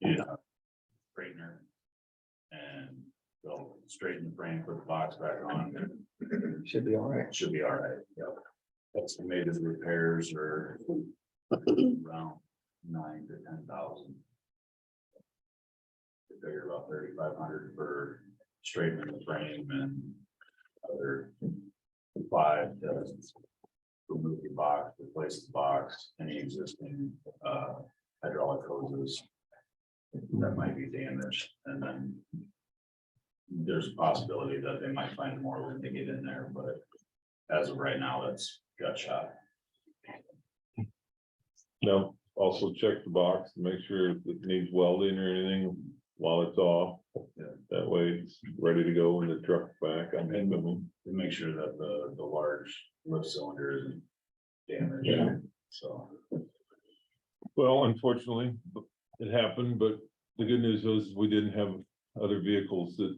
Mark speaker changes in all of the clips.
Speaker 1: Yeah. uh, Straightener. And go straighten the frame, put the box back on, and
Speaker 2: Should be all right.
Speaker 1: it should be all right, yep. Estimated repairs are around nine to ten thousand. Figure about thirty-five hundred for straightening the frame and other five to remove the box, replace the box, any existing uh hydraulic hoses that might be damaged, and then there's a possibility that they might find more when they get in there, but as of right now, that's gut shot.
Speaker 3: No, also check the box, to make sure if it needs welding or anything while it's off.
Speaker 1: Yeah.
Speaker 3: That way it's ready to go when the truck's back. I mean, I mean,
Speaker 1: to make sure that the, the large lift cylinder isn't
Speaker 3: Yeah.
Speaker 1: damaged, so.
Speaker 3: well, unfortunately, it happened, but the good news was we didn't have other vehicles that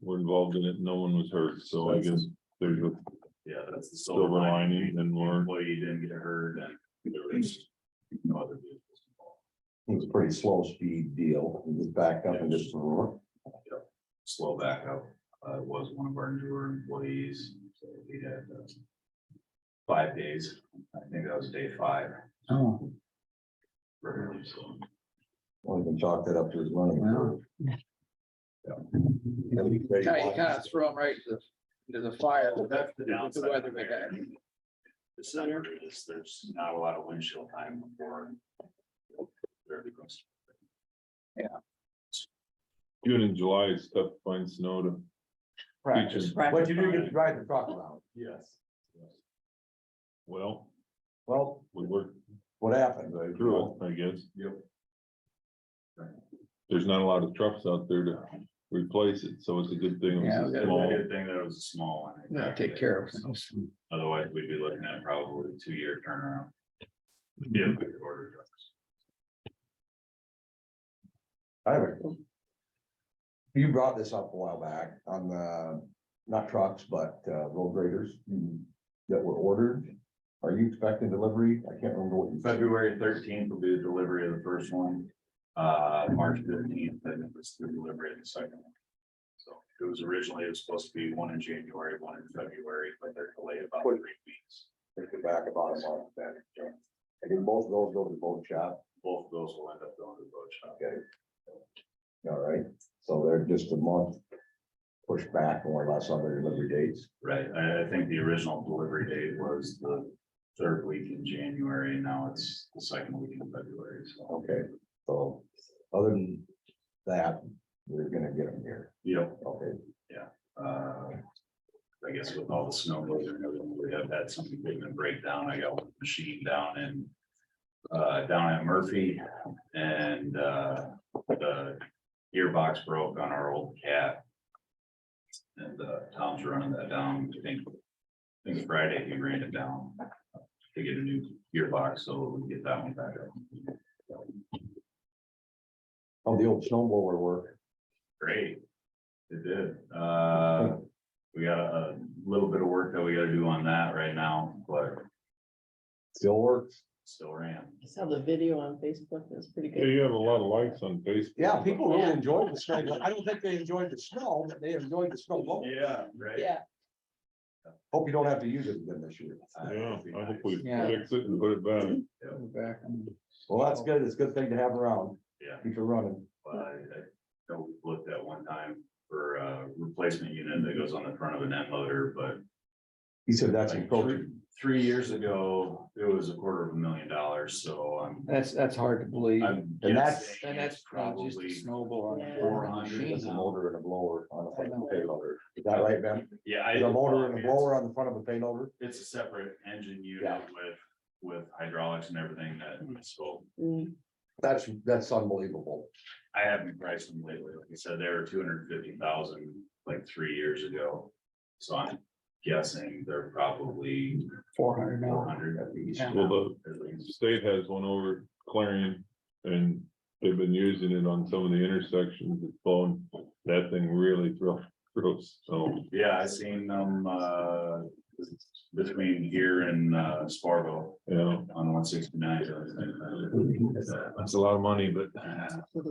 Speaker 3: were involved in it. No one was hurt, so I guess there's a
Speaker 1: Yeah, that's the silver
Speaker 3: silver lining
Speaker 1: lining.
Speaker 3: and more.
Speaker 1: Employee didn't get hurt and there was no other vehicles involved.
Speaker 2: It was a pretty slow speed deal. It was backed up and just.
Speaker 1: Slow backup, uh, was one of our newer employees, so we had, uh, five days, I think that was day five.
Speaker 2: Oh.
Speaker 1: Rarely, so.
Speaker 2: Only can chalk that up to his running.
Speaker 4: Wow. Kind of, kind
Speaker 2: Yeah.
Speaker 4: of throw them right to, the to the fire.
Speaker 1: Well, that's the
Speaker 4: The
Speaker 1: downside.
Speaker 4: weather we got.
Speaker 1: The center is, there's not a lot of windshield time before. there it goes.
Speaker 3: June and July is tough to find snow to.
Speaker 2: Practice. But you do get to drive the truck around.
Speaker 1: Yes.
Speaker 3: Well,
Speaker 2: Well,
Speaker 3: we worked
Speaker 2: what happened?
Speaker 3: through it, I guess.
Speaker 1: Yep.
Speaker 3: There's not a lot of trucks out there to replace it, so it's a good thing.
Speaker 4: Yeah,
Speaker 3: It's
Speaker 4: we
Speaker 3: a
Speaker 4: gotta-
Speaker 3: small.
Speaker 1: Good thing that it was a small one.
Speaker 4: Yeah, take care of them.
Speaker 1: Otherwise, we'd be looking at probably a two-year turnaround.
Speaker 4: Mm-hmm.
Speaker 1: Yeah. we could order trucks.
Speaker 2: I have a- You brought this up a while back on the, not trucks, but uh, road graders that were ordered. Are you expecting delivery? I can't remember what you said.
Speaker 1: February thirteenth will be the delivery of the first one. Uh, March fifteenth, I think was the delivery of the second one. So it was originally, it was supposed to be one in January, one in February, but they're delayed about three weeks.
Speaker 2: Take it back about a month then. And then both of those go to the boat shop,
Speaker 1: Both of those will end up going to the boat shop.
Speaker 2: all right? So they're just a month pushed back more or less on their delivery dates.
Speaker 1: Right, I, I think the original delivery date was the third week in January, and now it's the second week in February, so.
Speaker 2: Okay, so other than that, we're gonna get them here.
Speaker 1: Yep,
Speaker 2: Okay,
Speaker 1: uh, I guess with all the snow blizzard and everything, we have had some equipment breakdown. I got one machine down in. Uh, down at Murphy and, uh, the gearbox broke on our old cat. And, uh, Tom's running that down, I think, I think Friday he ran it down to get a new gearbox, so we can get that one back up.
Speaker 2: oh, the old snow blower work,
Speaker 1: Great. It did. Uh, we got a little bit of work that we gotta do on that right now, but
Speaker 2: still works.
Speaker 1: still ran.
Speaker 5: I saw the video on Facebook, it was pretty
Speaker 3: Yeah,
Speaker 5: good.
Speaker 3: you have a lot of likes on Facebook.
Speaker 2: Yeah, people really enjoyed the snow, I don't think they enjoyed the snow, but they enjoyed the snow blower.
Speaker 1: Yeah, right.
Speaker 5: Yeah,
Speaker 2: Hope you don't have to use it again this year.
Speaker 3: Yeah, I hope we
Speaker 4: Yeah.
Speaker 3: fix it and put it back.
Speaker 4: Back on.
Speaker 2: Well, that's good, it's a good thing to have around,
Speaker 1: Yeah,
Speaker 2: keep it running.
Speaker 1: but I, I know we looked at one time for a replacement unit that goes on the front of an end loader, but
Speaker 2: He said that's
Speaker 1: like
Speaker 2: encroaching.
Speaker 1: three- Three years ago, it was a quarter of a million dollars, so I'm.
Speaker 4: That's, that's hard to believe. And
Speaker 1: I'm
Speaker 2: And that's-
Speaker 1: guessing
Speaker 4: that's
Speaker 1: it's
Speaker 4: probably just a
Speaker 1: probably
Speaker 4: snowball.
Speaker 5: Yeah.
Speaker 1: four hundred.
Speaker 2: There's a motor and a blower on the front of a payloader. Is that right, Ben?
Speaker 1: Yeah. I-
Speaker 2: There's a motor and a blower on the front of a payloader?
Speaker 1: It's a separate engine unit
Speaker 2: Yeah. Hmm.
Speaker 1: with, with hydraulics and everything that, so
Speaker 5: Mm,
Speaker 2: That's, that's unbelievable.
Speaker 1: I haven't priced them lately. Like I said, they were two hundred fifty thousand like three years ago. So I'm guessing they're probably
Speaker 4: Four hundred
Speaker 1: four
Speaker 4: now.
Speaker 1: hundred at least.
Speaker 4: Yeah.
Speaker 3: Well,
Speaker 1: At
Speaker 3: the
Speaker 1: least.
Speaker 3: state has one over Clarion and they've been using it on some of the intersections. It's blown, that thing really thro- throws, so.
Speaker 1: Yeah, I seen them, uh, between here and, uh, Spargo
Speaker 3: Yeah,
Speaker 1: on one sixty-nine.
Speaker 3: that's a lot of money, but.